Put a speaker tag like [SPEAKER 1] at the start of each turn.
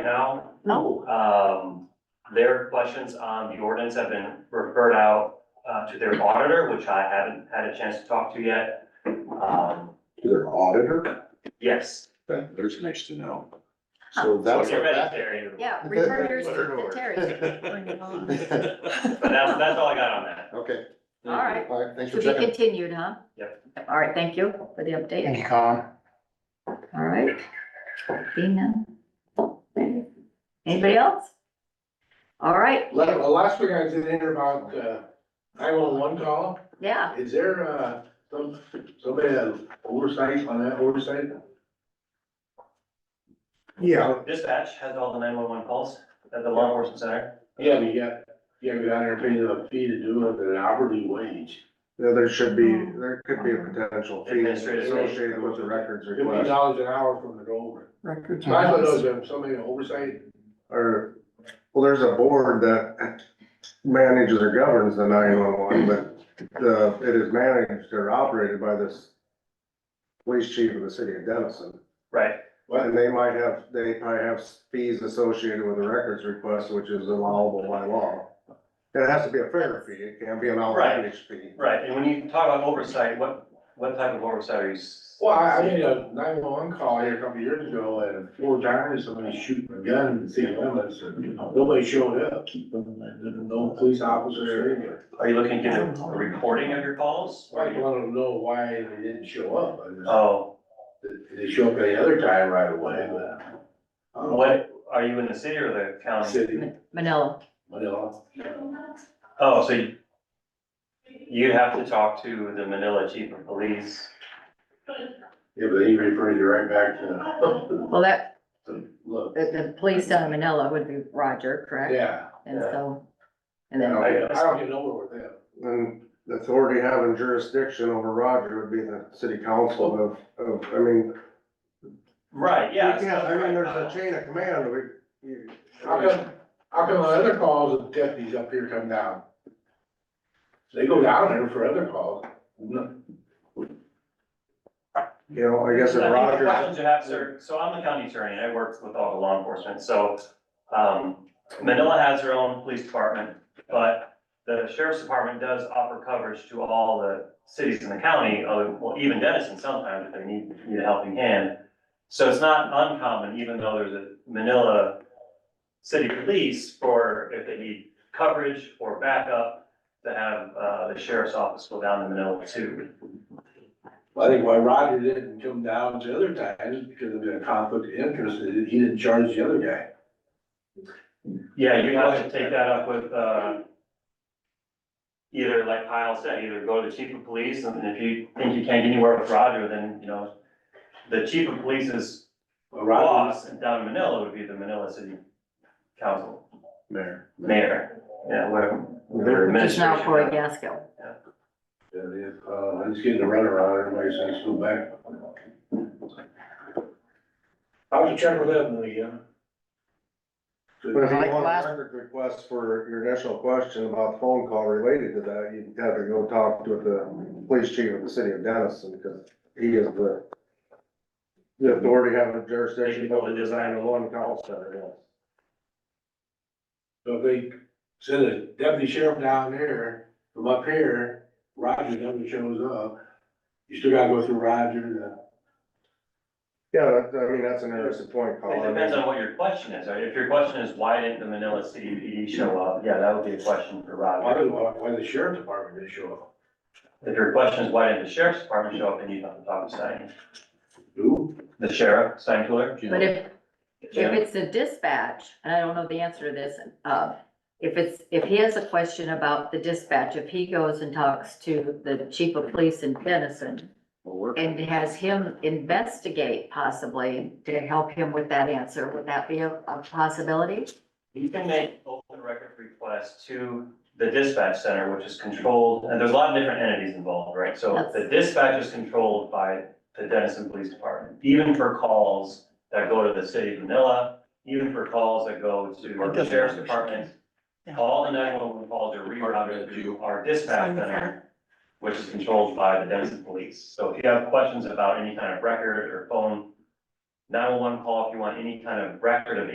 [SPEAKER 1] now.
[SPEAKER 2] No.
[SPEAKER 1] Um, their questions on the ordinance have been referred out, uh, to their auditor, which I haven't had a chance to talk to yet. Um,
[SPEAKER 3] to their auditor,
[SPEAKER 1] yes.
[SPEAKER 3] that, there's nice to know. So that's.
[SPEAKER 1] Get ready, Terry.
[SPEAKER 2] Yeah, return yours to Terry. Bring it on.
[SPEAKER 1] But that's, that's all I got on that.
[SPEAKER 3] Okay.
[SPEAKER 2] All right.
[SPEAKER 3] All right, thanks
[SPEAKER 2] To
[SPEAKER 3] for
[SPEAKER 2] be
[SPEAKER 3] checking.
[SPEAKER 2] continued, huh?
[SPEAKER 1] Yep.
[SPEAKER 2] All right, thank you for the update. Thank you, Colin. All right. Seeing none. Anybody else? All right,
[SPEAKER 4] La- The last thing I did hear about uh, nine one one call,
[SPEAKER 2] yeah,
[SPEAKER 4] is there uh, some, somebody that oversight on that oversight?
[SPEAKER 3] Yeah.
[SPEAKER 1] Dispatch has all the nine-one-one calls at the law enforcement center.
[SPEAKER 4] Yeah, but you got, you gotta go down there and pay the fee to do it at an hourly wage.
[SPEAKER 3] There should be, there could be a potential fee
[SPEAKER 1] Administrative fee.
[SPEAKER 3] associated with the records
[SPEAKER 4] Fifty
[SPEAKER 3] request.
[SPEAKER 4] dollars an hour from the over.
[SPEAKER 3] Records.
[SPEAKER 4] So I thought those are somebody that oversight,
[SPEAKER 3] Or, well, there's a board that manages or governs the nine-one-one, but the, it is managed or operated by this police chief of the city of Denison.
[SPEAKER 1] Right,
[SPEAKER 3] And they might have, they probably have fees associated with the records request, which is allowable by law. It has to be a fair fee, it can't be an outlandish fee.
[SPEAKER 1] right. And when you talk about oversight, what, what type of oversight are you? s-
[SPEAKER 4] well, I I made a nine one one call here a couple of years ago and four times somebody shooting a gun in the city limits and nobody showed up. No police officer or anything.
[SPEAKER 1] Are you looking to get a a recording of your calls? Or
[SPEAKER 4] I
[SPEAKER 1] you-
[SPEAKER 4] want to know why they didn't show up. I just-
[SPEAKER 1] Oh,
[SPEAKER 4] Did they show up any other time right away, but. I don't
[SPEAKER 1] Oh,
[SPEAKER 4] know.
[SPEAKER 1] what, are you in the city or the county?
[SPEAKER 4] City,
[SPEAKER 2] Ma- Manila,
[SPEAKER 4] Manila.
[SPEAKER 1] Oh, so you- you'd have to talk to the Manila chief of police.
[SPEAKER 4] Yeah, but he referred you right back to,
[SPEAKER 2] well, that,
[SPEAKER 4] to look.
[SPEAKER 2] the, the police down in Manila would be Roger, correct?
[SPEAKER 4] Yeah.
[SPEAKER 2] And so,
[SPEAKER 4] I
[SPEAKER 2] and then,
[SPEAKER 4] don't get- I don't get nowhere with them.
[SPEAKER 3] And the authority having jurisdiction over Roger would be the city council of, of, I mean.
[SPEAKER 1] Right, yeah. Uh,
[SPEAKER 3] you can't- I mean, there's a chain of command, we, you.
[SPEAKER 4] How come, how come the other calls of deputies up here come down? They go down there for other calls. No,
[SPEAKER 3] You know, I guess
[SPEAKER 1] I
[SPEAKER 3] if
[SPEAKER 1] think the
[SPEAKER 3] Roger,
[SPEAKER 1] questions you have, sir, so I'm the county attorney, and I work with all the law enforcement, so, um, Manila has her own police department, but the sheriff's department does offer coverage to all the cities in the county, other, well, even Denison sometimes if they need, need a helping hand. So it's not uncommon, even though there's a Manila city police for if they need coverage or backup, to have, uh, the sheriff's office go down to Manila too.
[SPEAKER 4] I think why Roger didn't come down to other times is because of the conflict of interest, and he didn't charge the other guy.
[SPEAKER 1] Yeah, you have to take that up with, uh, either like Kyle said, either go to the chief of police and if you think you can't get anywhere with Roger, then, you know, the chief of police's
[SPEAKER 4] Well, Roger,
[SPEAKER 1] boss down in Manila would be the Manila City Council,
[SPEAKER 3] Mayor,
[SPEAKER 1] mayor, yeah, whatever. their
[SPEAKER 2] just now
[SPEAKER 1] administration.
[SPEAKER 2] Corey Gaskell.
[SPEAKER 4] yeah, they- uh, he's getting a runaround, everybody says, go back. I'll have to check with them, yeah.
[SPEAKER 3] but if you
[SPEAKER 2] Like
[SPEAKER 3] want
[SPEAKER 2] last-
[SPEAKER 3] a record request for your initial question about phone call related to that, you'd have to go talk to the police chief of the city of Denison, because he is the the authority having jurisdiction over the design of one call center, yes.
[SPEAKER 4] So if they send a deputy sheriff down there, from up here, Roger never shows up, you still gotta go through Roger, and, uh,
[SPEAKER 3] Yeah, that- I mean, that's an interesting point,
[SPEAKER 1] It
[SPEAKER 3] Colin.
[SPEAKER 1] depends on what your question is, right? If your question is why didn't the Manila City PD show up, yeah, that would be a question for
[SPEAKER 4] why,
[SPEAKER 1] Roger.
[SPEAKER 4] did- why why the sheriff department didn't show up?
[SPEAKER 1] If your question is why didn't the sheriff's department show up, then you'd have to talk to Stein,
[SPEAKER 4] Who?
[SPEAKER 1] the sheriff, Stein Cooler.
[SPEAKER 2] But if, if it's a dispatch, and I don't know the answer to this, uh, if it's, if he has a question about the dispatch, if he goes and talks to the chief of police in Denison and has him investigate possibly to help him with that answer, would that be a, a possibility?
[SPEAKER 1] You can make open record requests to the dispatch center, which is controlled, and there's a lot of different entities involved, right? So
[SPEAKER 2] Yes.
[SPEAKER 1] the dispatch is controlled by the Denison Police Department, even for calls that go to the city of Manila, even for calls that go to the sheriff's department. All the nine one one calls are rerouted to our dispatch center, which is controlled by the Denison Police. So if you have questions about any kind of record or phone, nine one one call, if you want any kind of record of